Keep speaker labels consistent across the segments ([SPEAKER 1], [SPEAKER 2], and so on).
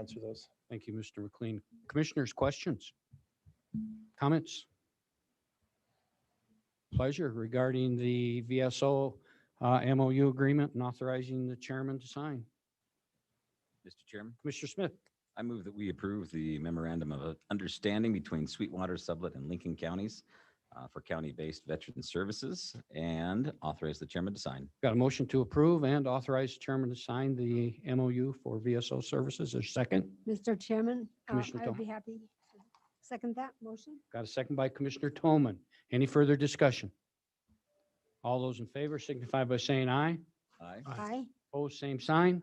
[SPEAKER 1] answer those.
[SPEAKER 2] Thank you, Mr. McLean. Commissioners, questions? Comments? Pleasure regarding the VSO uh, MOU agreement and authorizing the chairman to sign.
[SPEAKER 3] Mr. Chairman,
[SPEAKER 2] Commissioner Smith,
[SPEAKER 3] I move that we approve the memorandum of understanding between Sweetwater, Sublette, and Lincoln Counties uh, for county-based veteran services and authorize the chairman to sign.
[SPEAKER 2] got a motion to approve and authorize chairman to sign the MOU for VSO services. There's a second.
[SPEAKER 4] Mr. Chairman, uh,
[SPEAKER 2] Commissioner
[SPEAKER 4] I would
[SPEAKER 2] Tom.
[SPEAKER 4] be happy to second that motion.
[SPEAKER 2] Got a second by Commissioner Toman. Any further discussion? All those in favor signify by saying aye.
[SPEAKER 3] Aye.
[SPEAKER 4] Aye.
[SPEAKER 2] Opposed, same sign.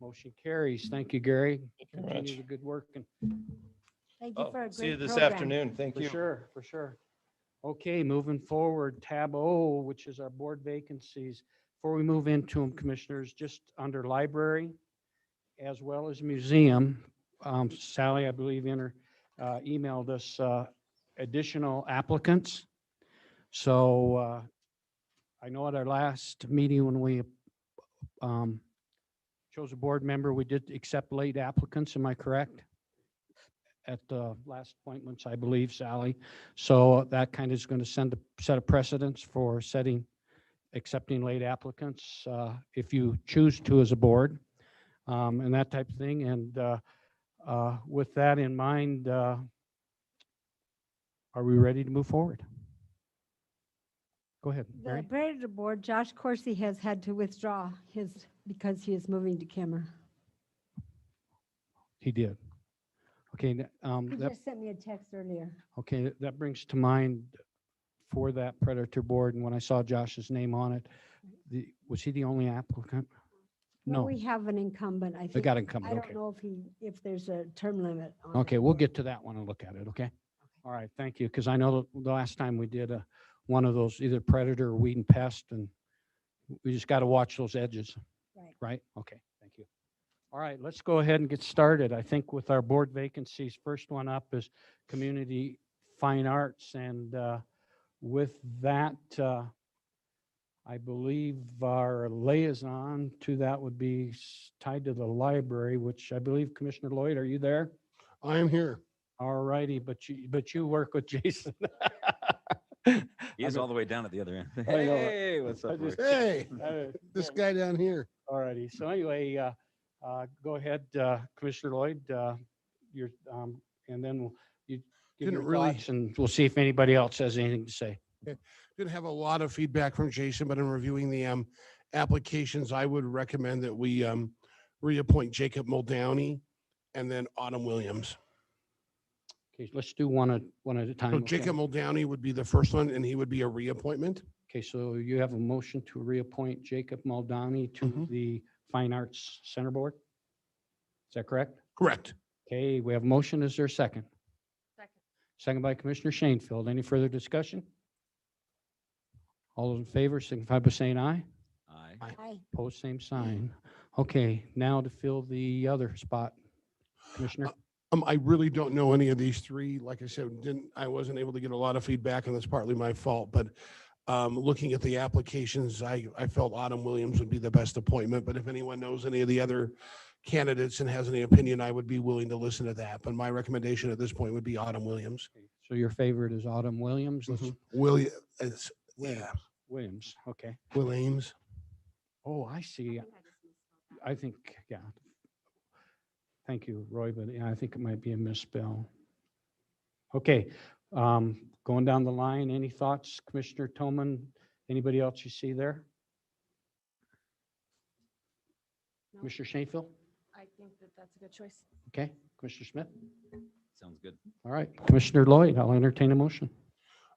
[SPEAKER 2] Motion carries. Thank you, Gary.
[SPEAKER 1] Thank you very
[SPEAKER 2] Continue
[SPEAKER 1] much.
[SPEAKER 2] the good work and
[SPEAKER 4] Thank you
[SPEAKER 1] Oh,
[SPEAKER 4] for a great program.
[SPEAKER 1] See you this afternoon. Thank
[SPEAKER 2] For
[SPEAKER 1] you.
[SPEAKER 2] sure, for sure. Okay, moving forward, tab O, which is our board vacancies. Before we move into them, commissioners, just under library as well as museum, um, Sally, I believe, inter, uh, emailed us, uh, additional applicants. So, uh, I know at our last meeting when we, um, chose a board member, we did accept late applicants, am I correct? at the last appointments, I believe, Sally. So that kind of is going to send a set of precedents for setting, accepting late applicants, uh, if you choose to as a board, um, and that type of thing. And uh, uh, with that in mind, uh, are we ready to move forward? Go ahead,
[SPEAKER 4] The
[SPEAKER 2] Mary.
[SPEAKER 4] Predator Board, Josh Corsi has had to withdraw his, because he is moving to Kimmer.
[SPEAKER 2] He did. Okay, th- um,
[SPEAKER 4] He
[SPEAKER 2] that
[SPEAKER 4] just sent me a text earlier.
[SPEAKER 2] Okay, th- that brings to mind for that predator board, and when I saw Josh's name on it, the, was he the only applicant?
[SPEAKER 4] Well,
[SPEAKER 2] No,
[SPEAKER 4] We have an incumbent, I think.
[SPEAKER 2] they got
[SPEAKER 4] I
[SPEAKER 2] incumbent, okay.
[SPEAKER 4] don't know if he, if there's a term limit on.
[SPEAKER 2] Okay,
[SPEAKER 4] that
[SPEAKER 2] we'll
[SPEAKER 4] board.
[SPEAKER 2] get to that one and look at it, okay? All right, thank you, because I know the last time we did a, one of those, either predator or weed and pest, and we just got to watch those edges.
[SPEAKER 4] Right.
[SPEAKER 2] Right? Okay, thank you. All right, let's go ahead and get started. I think with our board vacancies, first one up is Community Fine Arts, and uh, with that, uh, I believe our liaison to that would be s- tied to the library, which I believe Commissioner Lloyd, are you there?
[SPEAKER 5] I am here.
[SPEAKER 2] All righty, but you, but you work with Jason.
[SPEAKER 3] He is all the way down at the other end.
[SPEAKER 2] I know it.
[SPEAKER 3] Hey, what's
[SPEAKER 2] I
[SPEAKER 3] up?
[SPEAKER 2] just-
[SPEAKER 3] Lord?
[SPEAKER 5] Hey, this
[SPEAKER 2] Alrighty,
[SPEAKER 5] guy down here.
[SPEAKER 2] so anyway, uh, uh, go ahead, uh, Commissioner Lloyd, uh, your, um, and then we'll you give
[SPEAKER 5] Didn't
[SPEAKER 2] your
[SPEAKER 5] really-
[SPEAKER 2] thoughts and we'll see if anybody else has anything to say.
[SPEAKER 5] Didn't have a lot of feedback from Jason, but in reviewing the um applications, I would recommend that we um reappoint Jacob Muldowney and then Autumn Williams.
[SPEAKER 2] Okay, let's do one at, one at a time.
[SPEAKER 5] So
[SPEAKER 2] okay?
[SPEAKER 5] Oh, Jacob Muldowney would be the first one and he would be a reappointment.
[SPEAKER 2] Okay, so you have a motion to reappoint Jacob Maldani to
[SPEAKER 5] Mhm.
[SPEAKER 2] the Fine Arts Center Board? Is that correct?
[SPEAKER 5] Correct.
[SPEAKER 2] Okay, we have a motion. Is there a second? Second by Commissioner Shanefield. Any further discussion? All those in favor signify by saying aye.
[SPEAKER 3] Aye.
[SPEAKER 4] Aye.
[SPEAKER 2] Pose same sign. Okay, now to fill the other spot. Commissioner,
[SPEAKER 5] Um, I really don't know any of these three. Like I said, didn't, I wasn't able to get a lot of feedback and that's partly my fault, but um, looking at the applications, I, I felt Autumn Williams would be the best appointment, but if anyone knows any of the other candidates and has any opinion, I would be willing to listen to that. But my recommendation at this point would be Autumn Williams.
[SPEAKER 2] so your favorite is Autumn Williams? Let's-
[SPEAKER 5] William, it's, mm-hmm. yeah,
[SPEAKER 2] Williams, okay.
[SPEAKER 5] Williams.
[SPEAKER 2] Oh, I see. I think, yeah. Thank you, Roy, but yeah, I think it might be a misspell. Okay, um, going down the line, any thoughts, Commissioner Toman? Anybody else you see there?
[SPEAKER 6] No.
[SPEAKER 2] Commissioner Shanefield?
[SPEAKER 6] I think that that's a good choice.
[SPEAKER 2] Okay, Commissioner Smith?
[SPEAKER 3] Sounds good.
[SPEAKER 2] All right, Commissioner Lloyd, I'll entertain a motion.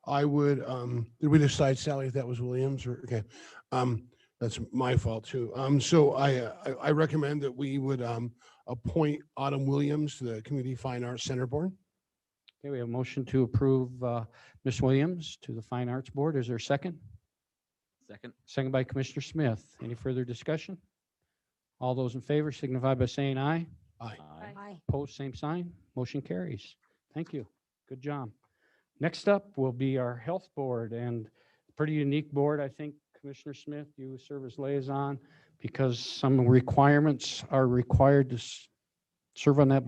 [SPEAKER 5] I would, um, did we decide Sally if that was Williams or, okay, um, that's my fault too. Um, so I, uh, I, I recommend that we would, um, appoint Autumn Williams to the Community Fine Arts Center Board.
[SPEAKER 2] Okay, we have a motion to approve, uh, Ms. Williams to the Fine Arts Board. Is there a second?
[SPEAKER 3] Second.
[SPEAKER 2] Second by Commissioner Smith. Any further discussion? All those in favor signify by saying aye.
[SPEAKER 5] Aye.
[SPEAKER 3] Aye.
[SPEAKER 4] Aye.
[SPEAKER 2] Post same sign. Motion carries. Thank you. Good job. Next up will be our Health Board and pretty unique board, I think, Commissioner Smith, you serve as liaison because some requirements are required to s- serve on that